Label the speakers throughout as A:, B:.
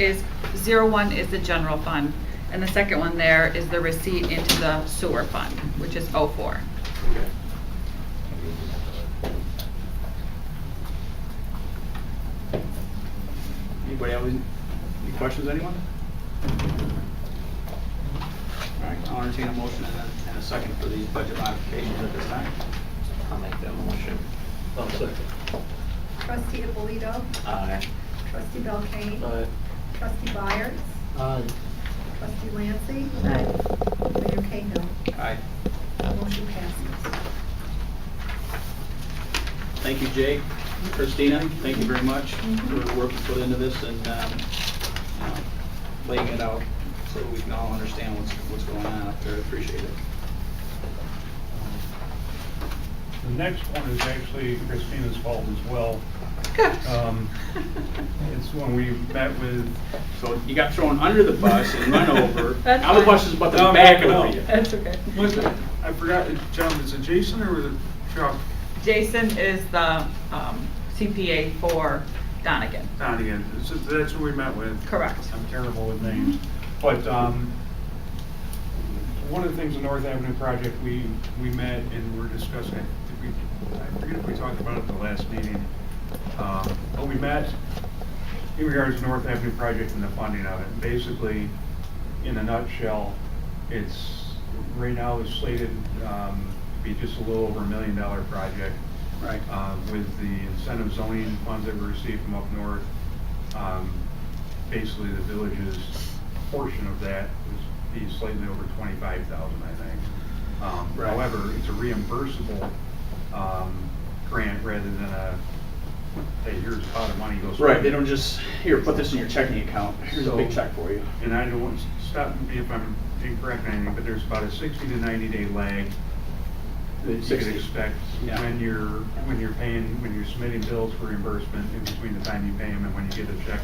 A: is, zero one is the general fund, and the second one there is the receipt into the sewer fund, which is oh four.
B: Anybody have any any questions, anyone? All right, I'll entertain a motion and a- and a second for these budget modifications at this time.
C: I'll make that motion.
D: I'll second.
E: Trustee Abolito.
C: Aye.
E: Trustee Belkane.
D: Aye.
E: Trustee Byers.
D: Aye.
E: Trustee Lancy. Mayor Cahill.
B: Aye.
E: Motion passes.
B: Thank you, Jake. Christina, thank you very much for the work you put into this and um, uh, laying it out so we can all understand what's, what's going on up there. I Appreciate it.
F: The next one is actually Christina's fault as well. Um, It's when we met with,
B: So you got thrown under the bus and run over.
A: That's
B: Now the
A: fine.
B: bus is about to
F: No,
B: back
F: no.
B: over you.
A: That's okay.
F: was it, I forgot, John, is it Jason or was it Chuck
A: Jason is the um, CPA for Donegan.
F: Donegan? This is- That's who we met with.
A: Correct.
F: I'm terrible with names. But um, one of the things, the North Avenue project, we, we met and we're discussing, did we- I forget if we talked about it at the last meeting, um, but we met in regards to North Avenue project and the funding of it. Basically, in a nutshell, it's, right now is slated um, to be just a little over a million dollar project
B: Right.
F: uh, with the incentive zoning funds that we received from up north. um, Basically, the village's portion of that would be slightly over twenty-five thousand, I think. Um,
B: Right.
F: However, it's a reimbursable um, grant rather than a, hey, here's a pot of money, go spend
B: Right,
F: it.
B: they don't just, here, put this in your checking account. Here's a big
F: So-
B: check for you.
F: and I don't want, stop me if I'm incorrect or anything, but there's about a sixty to ninety day lag that you could
B: 60,
F: expect
B: yeah.
F: when you're, when you're paying, when you're submitting bills for reimbursement in between the time you pay them and when you get a check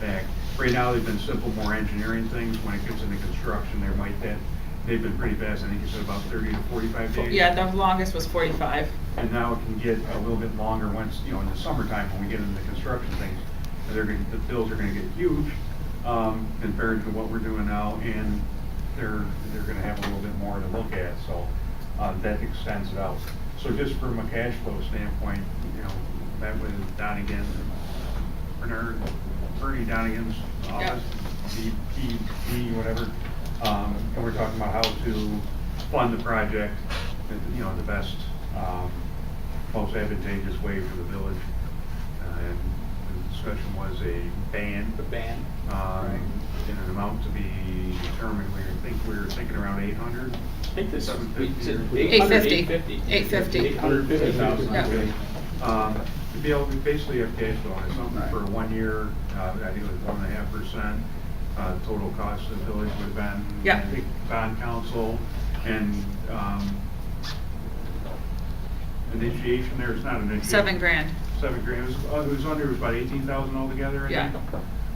F: back. Right now, they've been simple, more engineering things. When it gets into construction, there might that, they've been pretty fast. I think you said about thirty to forty-five days.
A: Yeah, the longest was 45.
F: And now it can get a little bit longer once, you know, in the summertime, when we get into the construction things, they're gonna, the bills are gonna get huge, um, compared to what we're doing now, and they're, they're gonna have a little bit more to look at, so, uh, that extends it out. So just from a cash flow standpoint, you know, that was Donegan, Bernard, Bernie Donigan's office, DPD, whatever, um, and we're talking about how to fund the project, in, you know, the best, um, most advantageous way for the village. Uh, And the discussion was a ban,
B: The ban.
F: um, in an amount to be determined, we think we were thinking around eight hundred.
B: I think this is.
F: Seven
B: is it
F: fifty.
B: 800,
A: 850. 850.
B: 850,000.
A: Yeah.
B: Okay.
F: Um, to be able, we basically have cash flow, it's something
B: Right.
F: for one year, uh, I think it was one and a half percent. Uh, total cost to the village would have been.
A: Yeah.
F: I think bond council and, um, initiation there, it's not an initiation.
A: Seven grand.
F: Seven grand, it was, uh, it was under, it was about eighteen thousand altogether, I
A: Yeah.
F: think.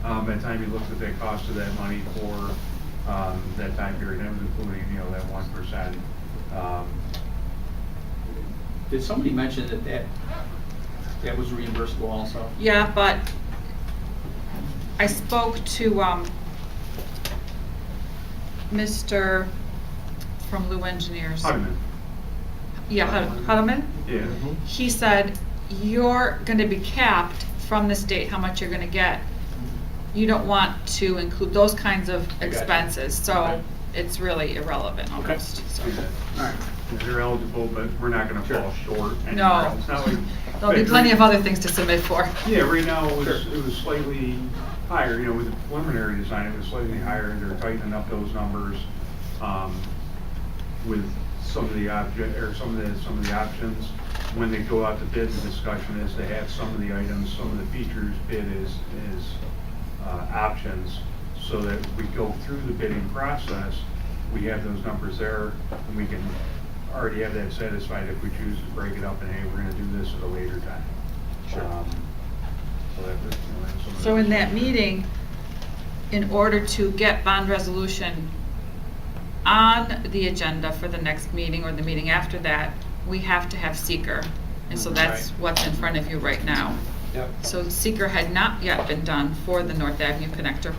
F: Um, by the time you looked at the cost of that money for, um, that time period, that was including, you know, that one percent. Um,
B: Did somebody mention that that, that was reimbursable also?
A: Yeah, but I spoke to, um, Mr. from Lou Engineers.
F: Wait a minute.
A: Yeah, Hud- Huddleman?
F: Yeah.
A: He said, you're gonna be capped from the state how much you're gonna get. You don't want to include those kinds of
B: I got you.
A: expenses, so
B: Okay.
A: it's really irrelevant
B: Okay.
A: almost, so.
B: All right.
F: They're eligible, but we're not gonna fall short. anywhere.
A: No.
F: It's not like-
A: There'll be plenty of other things to submit for.
F: Yeah, right now, it was,
B: Sure.
F: it was slightly higher, you know, with the preliminary design, it was slightly higher, and they're tightening up those numbers, um, with some of the object, or some of the, some of the options. When they go out to bid, the discussion is they have some of the items, some of the features bid is, is, uh, options, so that we go through the bidding process, we have those numbers there, and we can already have that satisfied if we choose to break it up and, hey, we're gonna do this at a later time.
B: Sure.
F: Um, so that- that's some of the-
A: So in that meeting, in order to get bond resolution on the agenda for the next meeting or the meeting after that, we have to have seeker. And so that's
B: Right.
A: what's in front of you right now.
B: Yep.
A: So seeker had not yet been done for the North Avenue Connector